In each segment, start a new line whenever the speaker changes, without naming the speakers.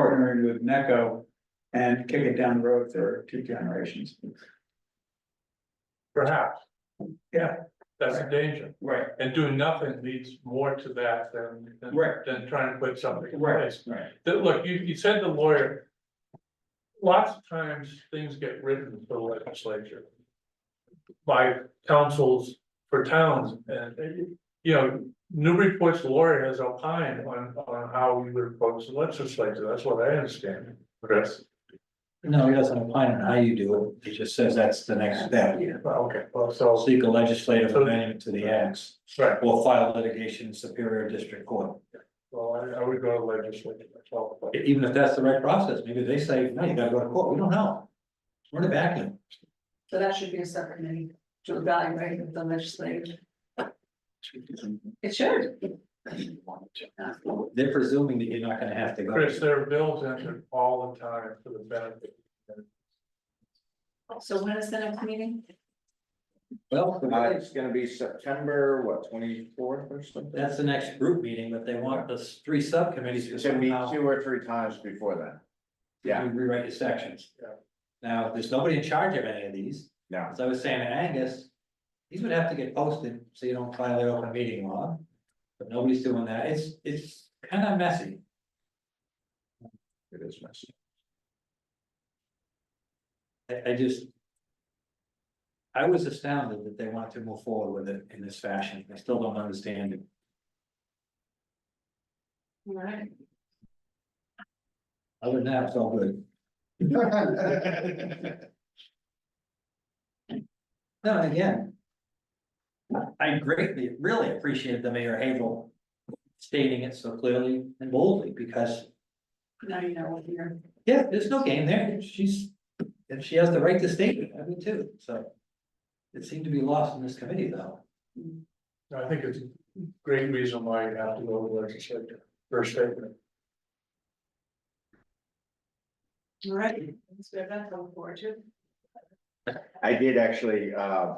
partnering with NECO and kick it down the road for two generations.
Perhaps.
Yeah.
That's a danger,
Right,
and doing nothing leads more to that than, than,
Right.
than trying to put something in
right,
place.
right.
That, look, you, you said the lawyer. Lots of times, things get written for the legislature. By councils for towns, and, you know, Newburyport's lawyer has opined on, on how we would approach the legislature, that's what I understand, Chris.
No, he doesn't opine on how you do it, he just says that's the next step.
Okay, well, so,
Seek a legislative amendment to the acts,
right,
or file litigation in Superior District Court.
well, I, I would go to legislature, that's all.
Even if that's the right process, maybe they say, no, you gotta go to court, we don't know. We're in a vacuum.
So that should be a separate meeting to evaluate the legislative. It should.
They're presuming that you're not gonna have to go.
Chris, there are bills entered all the time for the benefit.
So when is the next meeting?
Well,
Uh, it's gonna be September, what, twenty-fourth or something?
that's the next group meeting, but they want the three subcommittees to
It's gonna be
somehow
two or three times before then. yeah.
rewrite the sections.
Yeah.
Now, there's nobody in charge of any of these.
No.
As I was saying to Angus, these would have to get posted, so you don't violate open meeting law. But nobody's doing that, it's, it's kind of messy.
It is messy.
I, I just. I was astounded that they wanted to move forward with it in this fashion, I still don't understand it.
Right.
Other than that, it's all good. No, and again. I greatly, really appreciate the mayor Havel stating it so clearly and boldly, because,
Now you know what you're.
yeah, there's no game there, she's. And she has the right to state it, I mean, too, so. It seemed to be lost in this committee, though.
I think it's a great reason why you have to go to legislature, first statement.
All right. So we have that to look forward to.
I did actually, uh.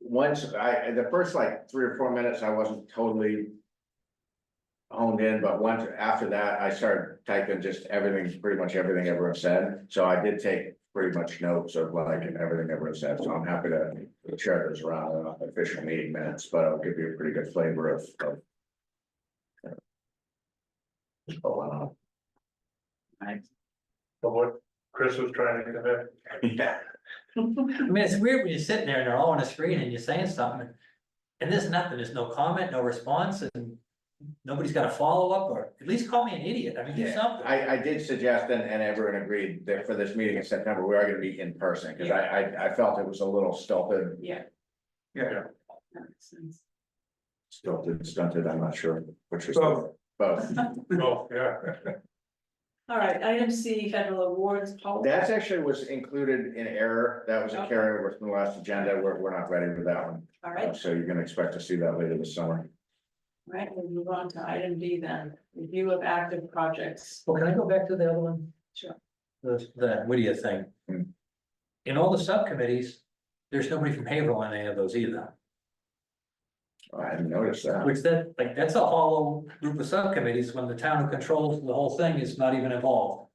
Once I, the first like three or four minutes, I wasn't totally. Honed in, but once after that, I started typing just everything, pretty much everything everyone said, so I did take pretty much notes of like everything everyone said, so I'm happy to. Share those around in our official meeting minutes, but I'll give you a pretty good flavor of. of- uh, What's going on.
But what Chris was trying to convey,
Yeah.
I mean, it's weird when you're sitting there and they're all on a screen and you're saying something. And there's nothing, there's no comment, no response, and nobody's got a follow-up, or at least call me an idiot, I mean, do
Yeah,
something.
I, I did suggest, and, and everyone agreed that for this meeting in September, we are gonna be in person, cause I, I, I felt it was a little stilted,
Yeah.
Yeah.
That makes sense.
stilted, stunted, I'm not sure which was.
Both.
Both.
oh, yeah.
All right, item C, federal awards policy.
That's actually was included in error, that was a
Okay.
carryover from the last agenda, we're, we're not ready for that one,
All right, all
so you're gonna expect to see that later this summer.
right, we'll move on to item D then, review of active projects.
Well, can I go back to the other one?
Sure.
The, the Whittier thing.
Hmm.
In all the subcommittees, there's nobody from Haverhill on any of those either,
I didn't notice that.
which that, like, that's a hollow group of subcommittees when the town who controls the whole thing is not even involved.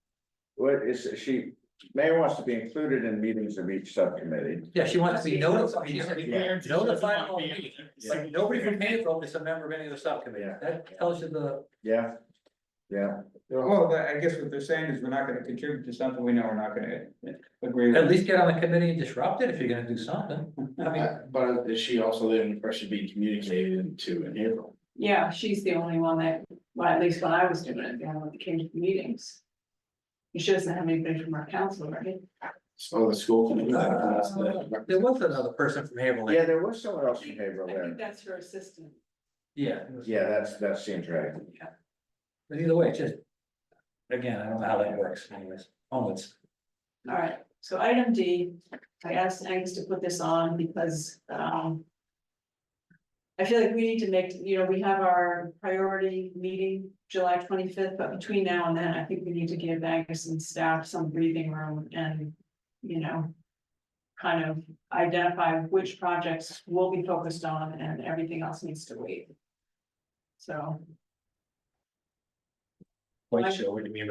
What is, she, mayor wants to be included in meetings of each subcommittee.
Yeah, she wants to be notified, she's
Yeah.
notified of all meetings. Like, nobody from Haverhill is a member of any of the subcommittees,
Yeah.
that tells you the
Yeah, yeah.
Well, I guess what they're saying is we're not gonna contribute to something we know we're not gonna agree
At
with.
least get on the committee and disrupt it if you're gonna do something. I mean,
Uh, But is she also the impression being communicated to in April?
Yeah, she's the only one that, well, at least when I was doing it, the only one that came to the meetings. She doesn't have anybody from our council, right?
So the school. Uh, committee, that's the-
there was another person from Haverhill.
Yeah, there was someone else in Haverhill
I think
there.
that's her assistant.
Yeah.
Yeah, that's, that seems right.
But either way, it's just. Again, I don't know how that works anyways, oh, onwards.
All right, so item D, I asked Angus to put this on because, um. I feel like we need to make, you know, we have our priority meeting July twenty-fifth, but between now and then, I think we need to give Angus and staff some breathing room and, you know. Kind of identify which projects will be focused on and everything else needs to wait. So. I-
quite sure what you mean